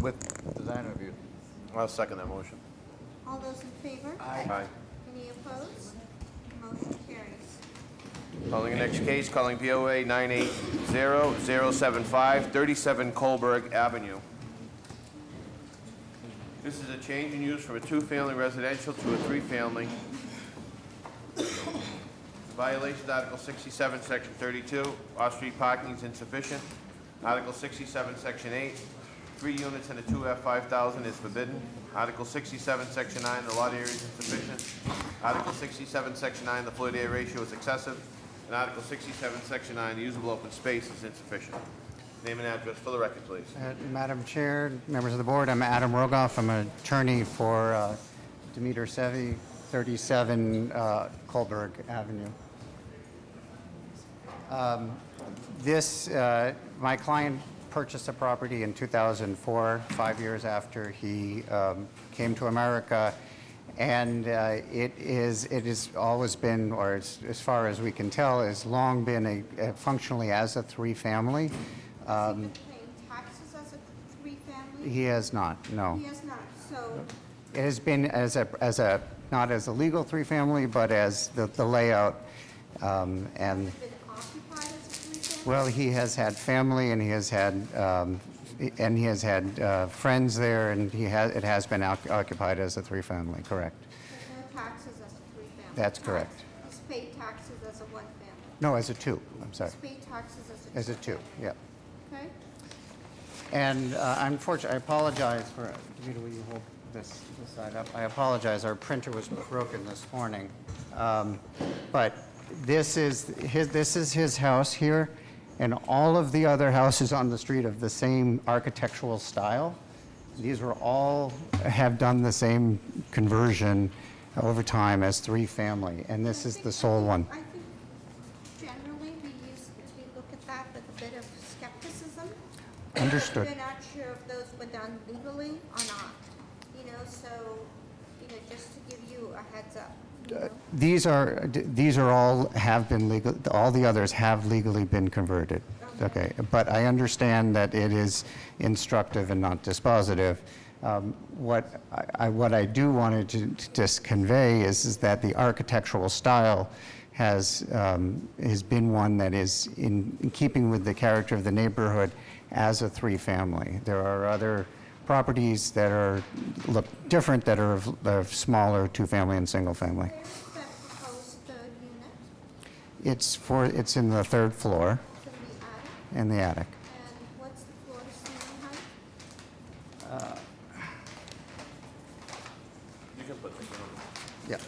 with design review. I'll second that motion. All those in favor? Aye. Any opposed? Motion carries. Calling the next case, calling POA 980075, 37 Colberg Avenue. This is a change in use from a two-family residential to a three-family. Violation Article 67, Section 32, off-street parking is insufficient. Article 67, Section 8, three units and a 2F 5,000 is forbidden. Article 67, Section 9, the lot area is insufficient. Article 67, Section 9, the floor-to-area ratio is excessive. And Article 67, Section 9, the usable open space is insufficient. Name and address for the record, please. Uh, Madam Chair, members of the board, I'm Adam Rogoff. I'm an attorney for uh, Demeter Sevi, 37 uh, Colberg Avenue. Um, This, uh, my client purchased the property in 2004, five years after he um, came to America, and uh, it is, it has always been, or as as far as we can tell, has long been a- a functionally as a Uh, three-family. Has he been paying taxes as a three-family? Um, He has not, no. He has not, so It has been as a, as a, not as a legal three-family, but as the the layout, um, and, been occupied as a three-family? well, he has had family, and he has had, um, and he has had uh, friends there, and he has, it has been oc- occupied as a three-family, correct? There's no taxes as a three-family? That's correct. Tax- He's paid taxes as a one-family? No, as a two, I'm sorry, He's paid taxes as a two? as a two, yeah. Okay, And uh, unfortunately, I apologize for, Vita, will you hold this this side up? I apologize, our printer was broken this morning. Um, But this is, his. this is his house here, and all of the other houses on the street of the same architectural style. These were all, have done the same conversion over time as three-family, and this is the sole one. I think generally we use, we look at that with a bit of skepticism. Understood. We're not sure if those were done legally or not, you know, so, you know, just to give you a heads up, you Uh, know. These are, these are all have been legal, all the others have legally been converted. Okay, but I understand that it is instructive and not dispositive. Um, What I, I- what I do wanted to to just convey is, is that the architectural style has, um, has been one that is in in keeping with the character of the neighborhood as a three-family. There are other properties that are, look different, that are of- of smaller, two-family and single-family. Where is that proposed third unit? It's for, it's in the third floor It's in the attic, in the attic. and what's the floor to ceiling height? You can put this on. Yeah.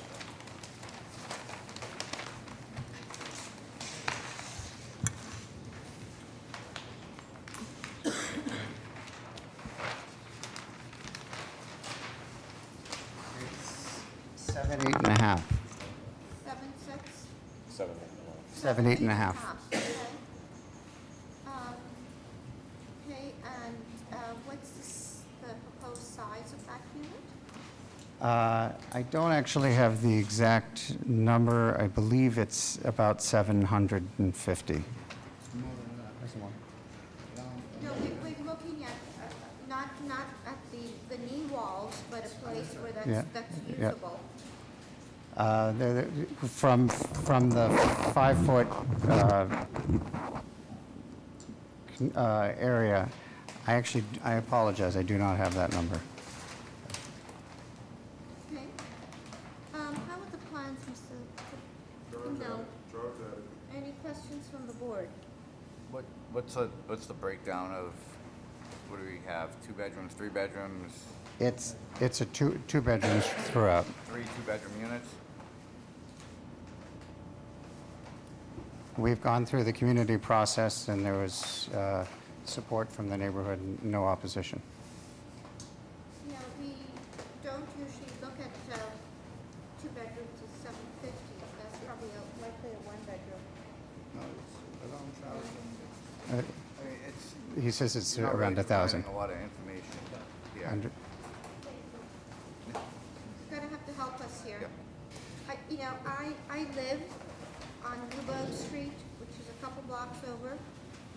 Seven, eight and a half. Seven, six? Seven. Seven, eight and a half. Okay. Um, Okay, and uh, what's the s- the proposed size of that unit? Uh, I don't actually have the exact number. I believe it's about 750. No, we- we're looking at, uh, not, not at the, the knee walls, but a place where that's, Yeah, that's yeah. usable. Uh, the- the- From, from the five-foot uh, con- uh, area, I actually, I apologize, I do not have that number. Okay. Um, How are the plans, Mr.? No. Any questions from the board? What, what's the, what's the breakdown of, what do we have, two bedrooms, three bedrooms, It's, it's a two, two bedrooms throughout. three two-bedroom units? We've gone through the community process, and there was uh, support from the neighborhood, and no opposition. You know, we don't usually look at uh, two bedrooms as seven fifty. That's probably a- likely a one bedroom. Uh, I mean, it's. He says it's you're not really around a providing 1,000. A lot of information here. Under- You're gonna have to help us here. Yep. I, you know, I, I live on Newburgh Street, which is a couple blocks over.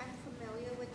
I'm familiar with